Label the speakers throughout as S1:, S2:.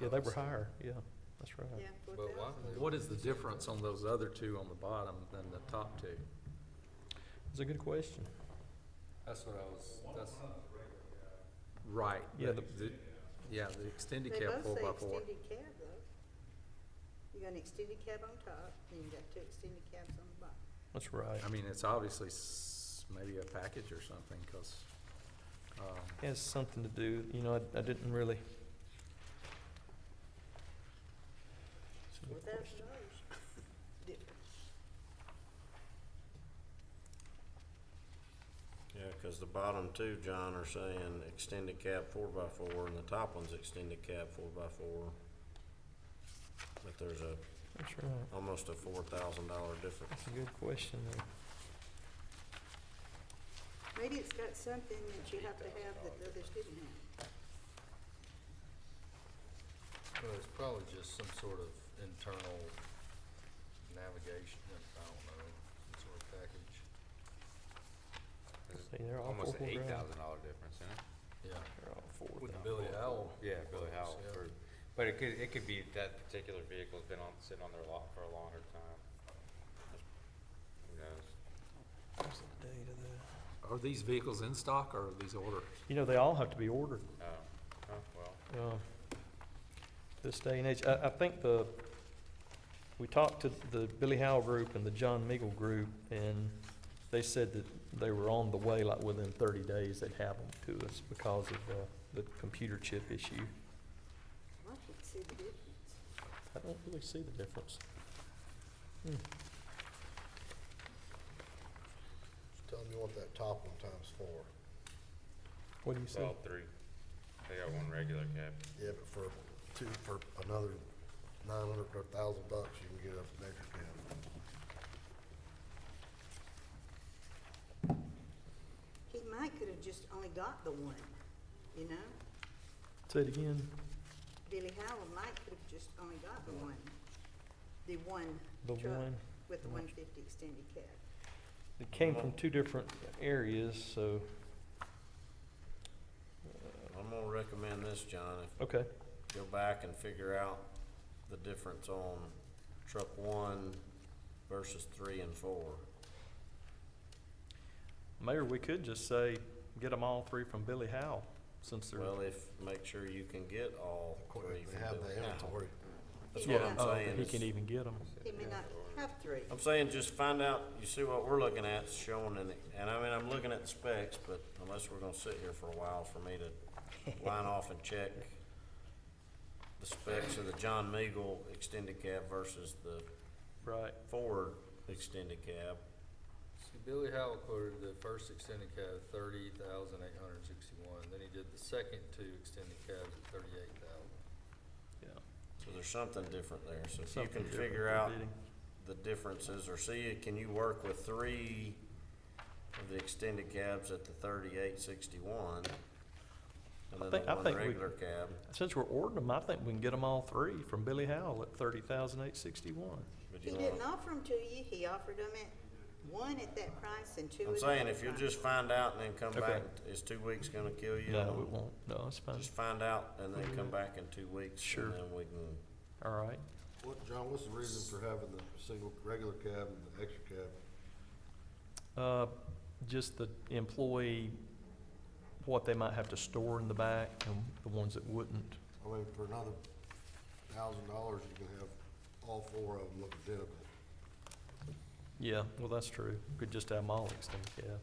S1: Yeah, they were higher, yeah, that's right.
S2: Yeah, four
S3: But why,
S2: thousand.
S3: what is the difference on those other two on the bottom than the top two?
S1: It's a good question.
S3: That's what I was, that's. Right.
S1: Yeah,
S3: but the- Yeah, the
S2: They
S3: extended cab
S2: both
S3: four
S2: say
S3: by four.
S2: extended cab though. You got an extended cab on top, then you got two extended cabs on the bottom.
S1: That's right.
S3: I mean, it's obviously s- maybe a package or something, cause, um,
S1: It has something to do, you know, I, I didn't really. It's a good
S2: Four thousand
S1: question.
S2: dollars. Difference.
S4: Yeah, because the bottom two, John, are saying extended cab four by four, and the top one's extended cab four by four. But there's a,
S1: That's right.
S4: almost a four thousand dollar difference.
S1: It's a good question there.
S2: Maybe it's got something that you have to have that the others didn't have.
S5: Well, it's probably just some sort of internal navigation, I don't know, some sort of package,
S1: See, they're all
S6: Almost an
S1: four-wheel
S6: eight
S1: drive.
S6: thousand dollar difference, isn't it?
S5: yeah.
S1: They're all four
S5: With
S1: thousand.
S5: Billy Howell.
S6: Yeah, Billy Howell,
S5: yeah.
S6: for- but it could, it could be that particular vehicle's been on, sitting on their lot for a longer time. Who knows?
S1: What's the date of that?
S3: are these vehicles in stock or are these orders?
S1: You know, they all have to be ordered,
S6: Oh, oh, well,
S1: uh, this day and age. I, I think the, we talked to the Billy Howell group and the John Meagle group, and they said that they were on the way, like within thirty days, they'd have them to us because of, uh, the computer chip issue.
S2: I can see the difference.
S1: I don't really see the difference.
S7: Tell them you want that top one times four.
S1: What do you see?
S6: well, three. They got one regular cab.
S7: Yeah, but for two, for another nine hundred or thousand bucks, you can get a bigger cab.
S2: He might could have just only got the one, you know?
S1: Say it again.
S2: Billy Howell might could have just only got the one, the one
S1: The
S2: truck
S1: one.
S2: with the one fifty extended cab.
S1: It came from two different areas, so,
S4: I'm gonna recommend this, John, if
S1: okay,
S4: go back and figure out the difference on truck one versus three and four.
S1: Mayor, we could just say, get them all three from Billy Howell, since they're.
S4: Well, if, make sure you can get all three
S7: They
S4: from
S7: have
S4: Billy
S7: the
S4: Howell.
S7: inventory.
S4: That's
S2: He
S4: what
S2: may
S4: I'm
S2: not-
S1: Oh,
S4: saying
S1: He
S4: is-
S1: can even get them.
S2: He may not have three.
S4: I'm saying just find out, you see what we're looking at, it's showing in, the- and I mean, I'm looking at the specs, but unless we're gonna sit here for a while for me to line off and check the specs of the John Meagle extended cab versus the
S1: Right.
S4: Ford extended cab.
S5: See, Billy Howell quoted the first extended cab at thirty thousand eight hundred and sixty-one, then he did the second two extended cabs at thirty-eight thousand.
S1: Yeah.
S4: So there's something different there, so if you
S1: Something
S4: can
S1: different
S4: figure
S1: than
S4: out
S1: bidding.
S4: the differences, or see, can you work with three of the extended cabs at the thirty-eight sixty-one? And then
S1: think-
S4: the
S1: I
S4: one
S1: think we-
S4: regular cab,
S1: Since we're ordering them, I think we can get them all three from Billy Howell at thirty thousand eight sixty-one.
S4: but
S2: He
S4: you wanna.
S2: didn't offer them to you, he offered them at one at that price and two at
S4: I'm
S2: another
S4: saying if you'll
S2: price.
S4: just find out and then come
S1: Okay.
S4: back, is two weeks gonna kill you?
S1: No, it won't. No, it's fine.
S4: Just find out and then come back in two weeks
S1: Sure.
S4: and then we can,
S1: All right.
S7: What, John, what's the reason for having the single, regular cab and the extra cab?
S1: Uh, just the employee, what they might have to store in the back and the ones that wouldn't.
S7: I mean, for another thousand dollars, you can have all four of them look identical.
S1: Yeah, well, that's true. Could just have them all extended cab.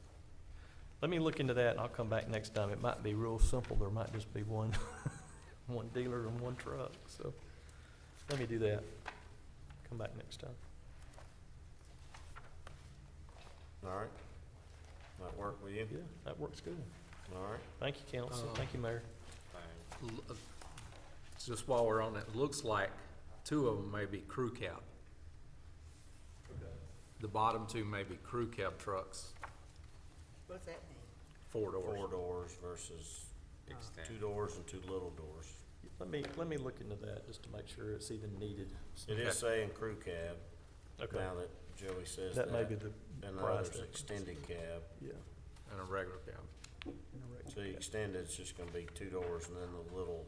S1: Let me look into that and I'll come back next time. It might be real simple. There might just be one, one dealer and one truck, so let me do that. Come back next time.
S4: alright? Might work with you,
S1: Yeah, that works good.
S4: alright?
S1: Thank you, council. Thank you, mayor.
S6: Thing.
S3: L- uh, Just while we're on it, looks like two of them may be crew cab. The bottom two may be crew cab trucks,
S2: What's that mean?
S3: four doors.
S4: Four doors versus
S6: Extend.
S4: two doors and two little doors.
S1: Let me, let me look into that just to make sure it's even needed.
S4: It is saying crew cab,
S1: Okay.
S4: now that Joey says that.
S1: That may be the
S4: And the
S1: price
S4: other's
S1: difference.
S4: extended cab,
S1: Yeah.
S3: And a regular cab.
S4: so the extended's just gonna be two doors and then the little